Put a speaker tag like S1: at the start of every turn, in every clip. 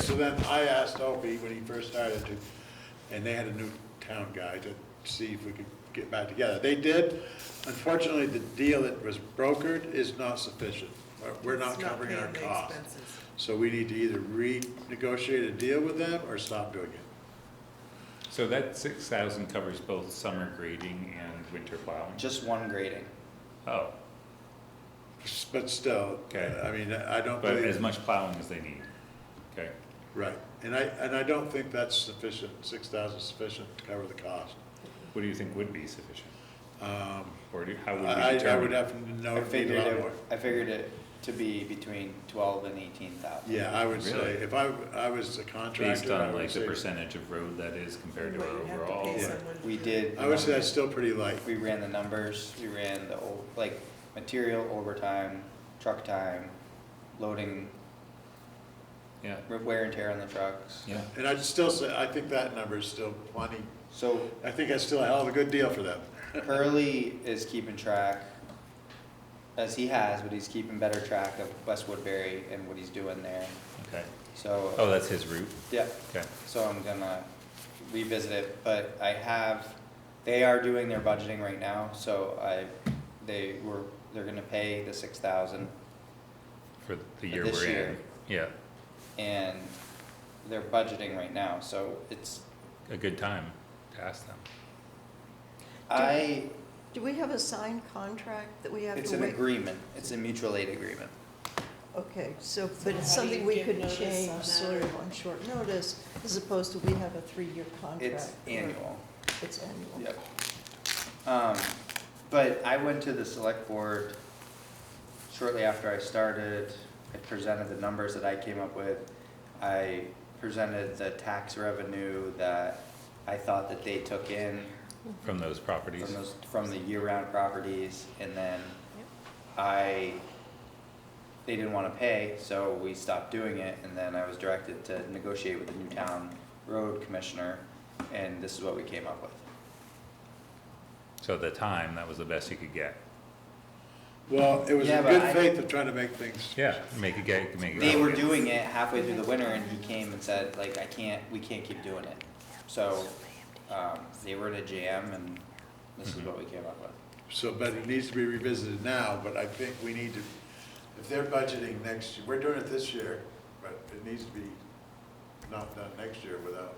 S1: then I asked Opie when he first started to, and they had a new town guy to see if we could get back together. They did. Unfortunately, the deal that was brokered is not sufficient. We're- We're not
S2: It's not
S1: covering our
S2: paying the
S1: costs.
S2: expenses.
S1: So we need to either renegotiate a deal with them or stop doing it.
S3: So that six thousand covers both summer grading and winter plowing?
S4: Just one grading.
S3: Oh,
S1: But still,
S3: Okay.
S1: I mean, I don't
S3: but
S1: believe.
S3: as much plowing as they need, okay?
S1: Right, and I, and I don't think that's sufficient, six thousand sufficient to cover the cost.
S3: What do you think would be sufficient?
S1: Um,
S3: Or do, how would we
S1: I, I- I would
S3: determine?
S1: have to know
S4: I
S1: if need a
S4: figured
S1: lot
S4: it,
S1: more.
S4: I figured it to be between twelve and eighteen thousand.
S1: Yeah, I would say,
S3: Really?
S1: if I, I was a
S3: Based
S1: contractor, I
S3: on
S1: would
S3: like the
S1: say,
S3: percentage of road that is compared to
S2: Well,
S3: our
S2: you have to
S3: overall?
S2: pay
S1: Yeah.
S2: someone
S4: We
S2: for-
S4: did.
S1: I would say that's still pretty light.
S4: We ran the numbers, we ran the, o- like, material overtime, truck time, loading,
S3: Yeah,
S4: wear and tear on the trucks.
S3: yeah.
S1: And I'd still say, I think that number is still plenty,
S4: So
S1: I think that's still a hell of a good deal for them.
S4: Hurley is keeping track, as he has, but he's keeping better track of West Woodbury and what he's doing there.
S3: Okay.
S4: So,
S3: Oh, that's his route?
S4: yeah,
S3: Okay.
S4: so I'm gonna revisit it, but I have, they are doing their budgeting right now, so I, they were, they're gonna pay the six thousand.
S3: For the
S4: For
S3: year
S4: this
S3: we're in?
S4: year.
S3: Yeah,
S4: and they're budgeting right now, so it's,
S3: a good time to ask them.
S4: I,
S5: Do we have a signed contract that we have to wait?
S4: it's an agreement, it's a mutual aid agreement.
S5: Okay,
S2: So
S5: so, but
S2: how do
S5: it's something
S2: you
S5: we
S2: give
S5: could
S2: notice on
S5: change
S2: that?
S5: sort of on short notice, as opposed to we have a three-year contract.
S4: It's
S5: or-
S4: annual,
S5: It's annual.
S4: yep. Um, but I went to the select board shortly after I started, I presented the numbers that I came up with. I presented the tax revenue that I thought that they took in
S3: From those properties?
S4: from those, from the year-round properties, and then
S5: Yep.
S4: I, they didn't wanna pay, so we stopped doing it, and then I was directed to negotiate with the Newtown Road Commissioner, and this is what we came up with.
S3: So at the time, that was the best you could get?
S1: Well, it was
S4: Yeah,
S1: in
S4: but
S1: good
S4: I-
S1: faith of trying to make things.
S3: Yeah, make a get, make a.
S4: They
S3: go.
S4: were doing it halfway through the winter, and he came and said, like, I can't, we can't keep doing it. So, um, they were in a jam, and this is what we came up with.
S1: So, but it needs to be revisited now, but I think we need to, if they're budgeting next, year, we're doing it this year, but it needs to be not done next year without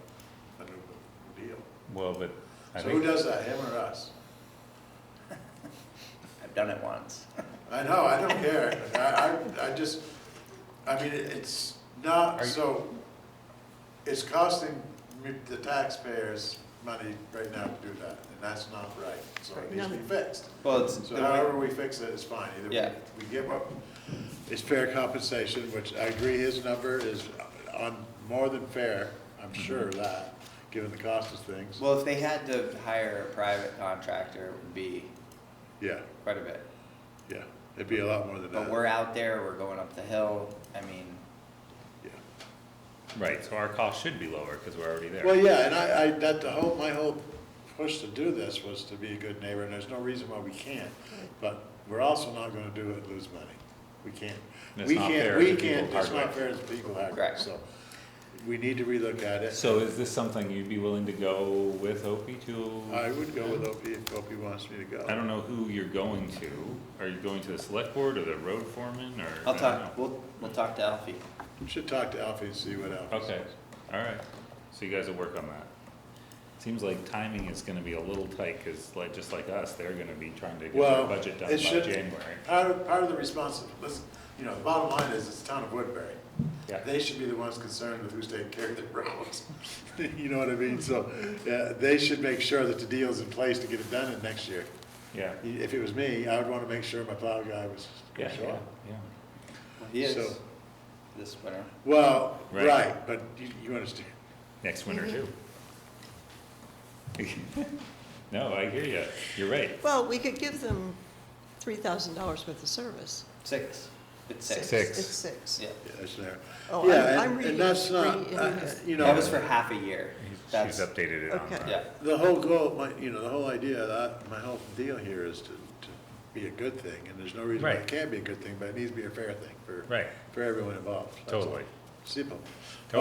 S1: a new deal.
S3: Well, but I
S1: So who
S3: think,
S1: does that, him or us?
S4: I've done it once.
S1: I know, I don't care, I, I, I just, I mean, it- it's not,
S3: Are you-
S1: so, it's costing me, the taxpayers money right now to do that, and that's not right, so it needs to be fixed.
S4: Well, it's,
S1: So
S4: the way-
S1: however we fix it is fine, either
S4: Yeah.
S1: we, we give up, it's fair compensation, which I agree his number is on, more than fair, I'm sure of that, given the cost of things,
S4: well, if they had to hire a private contractor, it would be
S1: yeah,
S4: quite a bit.
S1: yeah, it'd be a lot more than that.
S4: But we're out there, we're going up the hill, I mean,
S1: Yeah.
S3: right, so our cost should be lower because we're already there.
S1: Well, yeah, and I, I, that, the whole, my whole push to do this was to be a good neighbor, and there's no reason why we can't. But we're also not gonna do it, and lose money. We can't.
S3: And it's
S1: We
S3: not
S1: can't,
S3: fair
S1: we
S3: to people
S1: can't, it's not
S3: Hardwick.
S1: fair to people, Hardwick,
S4: Correct.
S1: so we need to relook at it.
S3: So is this something you'd be willing to go with Opie to?
S1: I would go with Opie if Opie wants me to go.
S3: I don't know who you're going to. Are you going to the select board or the road foreman or?
S4: I'll
S3: I don't
S4: talk,
S3: know.
S4: we'll, we'll talk to Alfie.
S1: Should talk to Alfie and see what Alfie
S3: Okay,
S1: says.
S3: all right. So you guys will work on that. Seems like timing is gonna be a little tight because like, just like us, they're gonna be trying to get their
S1: Well,
S3: budget done by
S1: it should-
S3: January.
S1: Part of, part of the response, listen, you know, the bottom line is, it's the town of Woodbury.
S3: Yeah.
S1: They should be the ones concerned with who's taking care of their roads. You know what I mean? So, uh, they should make sure that the deal's in place to get it done in next year.
S3: Yeah,
S1: If it was me, I would wanna make sure my plow guy was
S3: yeah,
S1: gonna show
S3: yeah,
S1: up.
S3: yeah.
S4: He is,
S1: So-
S4: this winter.
S1: Well,
S3: Right.
S1: right, but you, you understand.
S3: Next winter too. No, I hear you. You're right.
S5: Well, we could give them three thousand dollars worth of service.
S4: Six, it's six.
S3: Six.
S5: It's six.
S4: Yeah,
S1: Yeah, that's there.
S5: Oh, I'm-
S1: Yeah,
S5: I'm
S1: and,
S5: reading-
S1: and that's not,
S5: reading
S1: uh,
S5: this.
S1: you know.
S4: that was for half a year.
S3: He's-
S4: That's,
S3: She's updated it on.
S5: Okay.
S3: that.
S4: yeah,
S1: The whole goal, my, you know, the whole idea, of that, my whole deal here is to, to be a good thing, and there's no reason why
S3: Right.
S1: it can't be a good thing, but it needs to be a fair thing for,
S3: Right.
S1: for everyone involved. That's all.
S3: Totally.
S1: Simple.